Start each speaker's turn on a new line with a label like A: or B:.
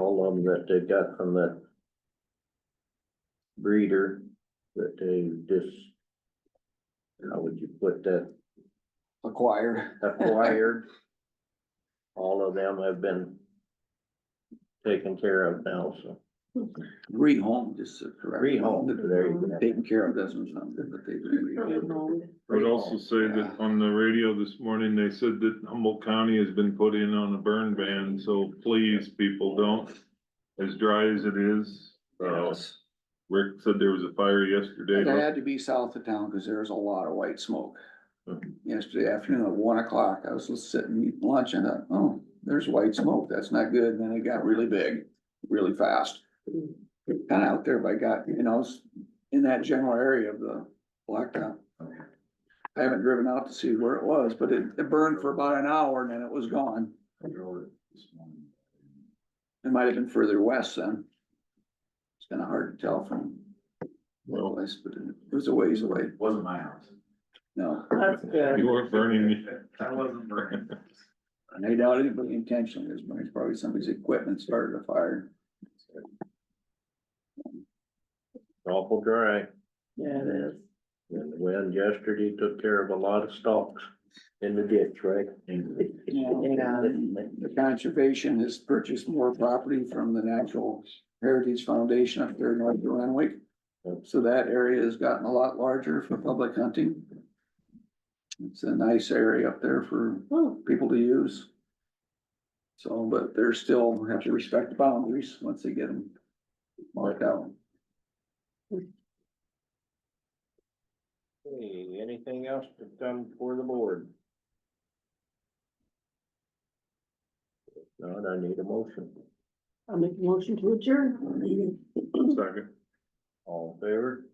A: problem that they got from the breeder, that they just, how would you put that,
B: acquired.
A: acquired? All of them have been taken care of now, so.
B: Rehomed is the correct.
A: Rehomed, there you go.
B: Taken care of doesn't sound good, but they've been rehomed.
C: I would also say that on the radio this morning, they said that Humboldt County has been put in on a burn ban, so please, people, don't. As dry as it is, uh,
A: Yes.
C: Rick said there was a fire yesterday.
B: It had to be south of town because there's a lot of white smoke. Mm-hmm.
C: Mhm.
B: Yesterday afternoon at one o'clock, I was just sitting eating lunch and I thought, oh, there's white smoke. That's not good. And then it got really big, really fast. Kind of out there by God, you know, it's in that general area of the blacktop. I haven't driven out to see where it was, but it, it burned for about an hour and then it was gone. It might have been further west then. It's kind of hard to tell from one place, but it was a ways away.
D: Wasn't my house.
B: No,
E: That's good.
C: You weren't burning.
D: I wasn't burning.
B: I doubt anybody intentionally is, but it's probably somebody's equipment started a fire.
A: Awful dry,
E: Yeah, it is.
A: and the wind yesterday took care of a lot of stalks in the ditch, right?
E: Yeah.
B: The conservation has purchased more property from the Natural Heritage Foundation up there in North Renwick. So that area has gotten a lot larger for public hunting. It's a nice area up there for
E: Oh,
B: people to use. So, but they're still have to respect the boundaries once they get them marked out.
A: Hey, anything else to come for the board? If Not, I need a motion.
E: I'll make a motion to adjourn.
C: Second.
A: All in favor?